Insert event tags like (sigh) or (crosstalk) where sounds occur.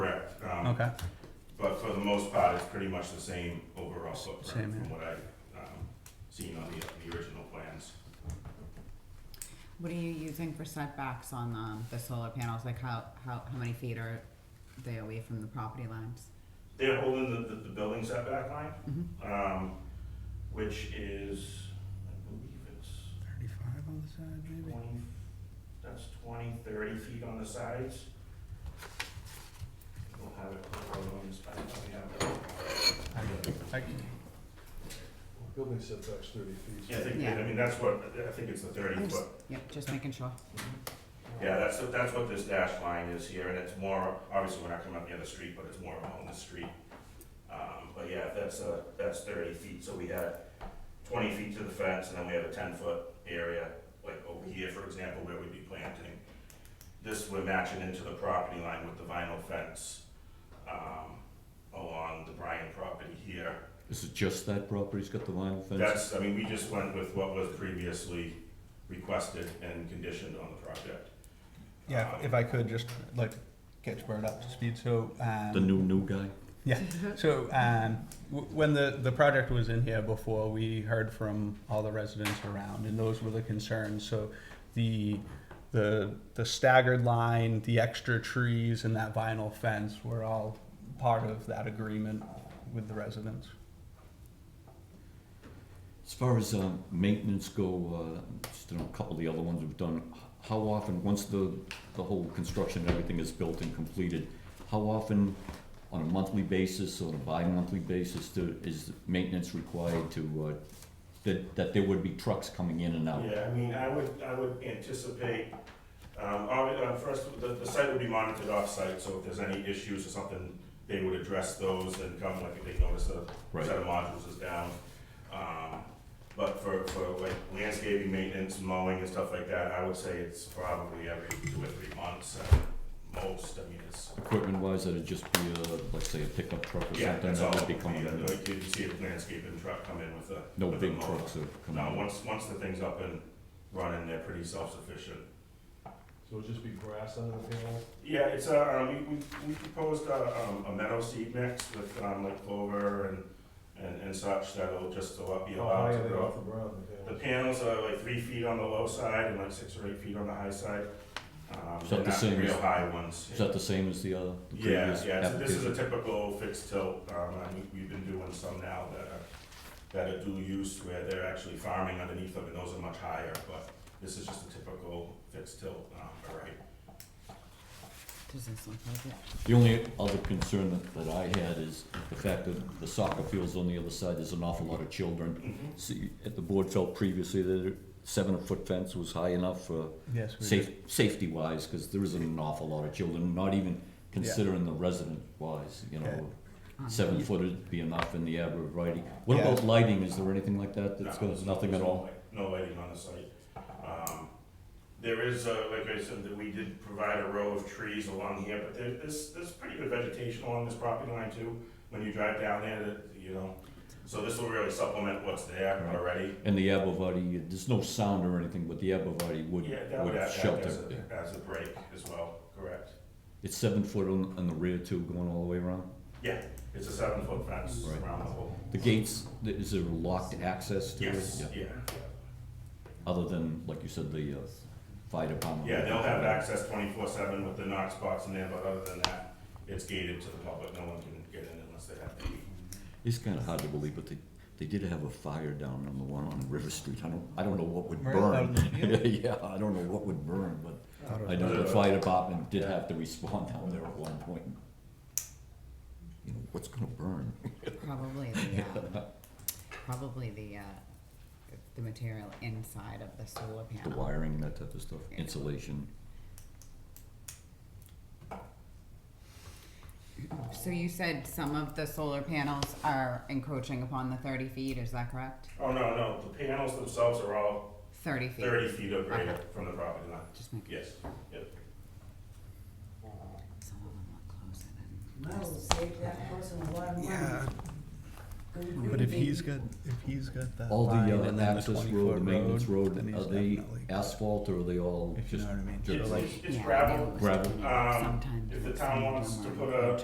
Okay, Um, But for the most part, it's pretty much the same overall footprint Same, yeah. from what I, um, seen on the, the original plans. What are you using for setbacks on um, the solar panels? Like how, how, how many feet are they away from the property lines? They're holding the, the, the building setback line, Mm-hmm. Mhm. um, which is, I believe it's thirty-five on the side, maybe. twenty, that's 20, 30 feet on the sides. I Don't have it, I don't have it. I can- Building setback's thirty feet. Yeah, I think, I Yeah. mean, that's what, I think it's the thirty I'm foot. just, yep, just making sure. Yeah, that's, that's what this dashed line is here, and it's more, obviously, we're not coming up the other street, but it's more along the street. Um, but yeah, that's, uh, that's thirty feet, so we had twenty feet to the fence, and then we have a ten-foot area, like over here, for example, where we'd be planting. This, we're matching into the property line with the vinyl fence, um, along the Bryan property here. Is it just that property's got the vinyl fence? That's, I mean, we just went with what was previously requested and conditioned on the project. Yeah, if- if I could just like catch Bert up to speed, so. um, The new, new guy? Yeah, so um, w- when the, the project was in here before, we heard from all the residents around, and those were the concerns. So the, the, the staggered line, the extra trees, and that vinyl fence were all part of that agreement with the residents. As far as, um, maintenance go, uh, just know a couple of the other ones we've done, h- how often, once the, the whole construction and everything is built and completed, how often, on a monthly basis or a bi-monthly basis, do, is maintenance required to, uh, that, that there would be trucks coming in and out? Yeah, I mean, I would, I would anticipate, um, obvi- uh, first, the, the site would be monitored off-site, so if there's any issues or something, they would address those and come, like, if they notice a Right. set of modules is down. Um, but for, for like landscaping, maintenance, mowing and stuff like that, I would say it's probably every two or three months at most, I mean, it's, Equipment wise, that'd just be a, let's say, a pickup truck or yeah, something that's all. that would be Yeah, coming in? Like, you see a landscaping truck come in with a. No with a big mower. trucks are coming No, in? once, once the thing's up and running, they're pretty self-sufficient. So it'll just be grass under the panel? Yeah, it's a, um, we, we, we proposed a, um, a meadow seed mix with, um, like clover and, and, and such that'll just allow, be How high allowed are to they grow. off the ground, the The panels? panels are like three feet on the low side and like six or eight feet on the high side. Um, Is that they're the not same real as- high ones. Is that the same as the other, the Yeah, previous yeah, so this is application? a typical fixed tilt, um, and we- we've been doing some now that are, that are dual use where they're actually farming underneath them and those are much higher, but this is just a typical fixed tilt, um, variety. Does this look like it? The only other concern that, that I had is the fact that the soccer field's on the other side, there's an awful lot of children. So you- at the board felt previously that a seven-foot fence was high enough for Yes, we safe, did. safety-wise, because there isn't an awful lot of children, not even considering the resident-wise, you know. Um, Seven foot would be enough in the arborvitae. What Yeah. about lighting? Is there anything like that No, that's got there's no- nothing at there's no all? light- No lighting on the site. Um, There is, uh, like I said, that we did provide a row of trees along here, but there, there's, there's pretty good vegetation along this property line too. When you drive down there, that, you know, so this will really supplement what's there Right. already. And the arborvitae, there's no sound or anything, but the arborvitae would, Yeah, that would would act act shelter. as a, as a break as well, correct? It's seven foot on, on the rear too, going all the way around? Yeah, it's a seven foot fence Right. around the whole. The gates, th- is there locked access to it? Yes, Yeah. yeah. Other than, like you said, the uh, fire department? Yeah, they'll have access twenty-four seven with the knock spots in there, but other than that, it's gated to the public. No one can get in unless they have to be. It's kind of hard to believe, but they, they did have a fire down on the one on River Street. I don't, I don't know what would Right out burn. in the field. (laughs) Yeah, I don't know what would burn, but Thought it I was- Uh, know the fire department did have to respond down there at one point. You know, what's gonna burn? (laughs) Probably the, um, probably the, uh, the material inside of the solar The panel. wiring, that type of stuff, Yeah. insulation. So you said some of the solar panels are encroaching upon the thirty feet, is that correct? Oh, no, no, the panels themselves are all Thirty feet? thirty feet or greater Okay. from the property line. Just making Yes, yep. some of them look closer than. No, save that person a lot of money. Good But if grief. he's got, if he's got that All the line uh, and then the access road, twenty-foot the maintenance road, then he's are they definitely. asphalt or are they all If you just? know what I mean. dirt It's- roads? it's- It's Yeah, gravel, they always Gravel. do. Um, Sometimes if the it's town sand wants to and put lime. a,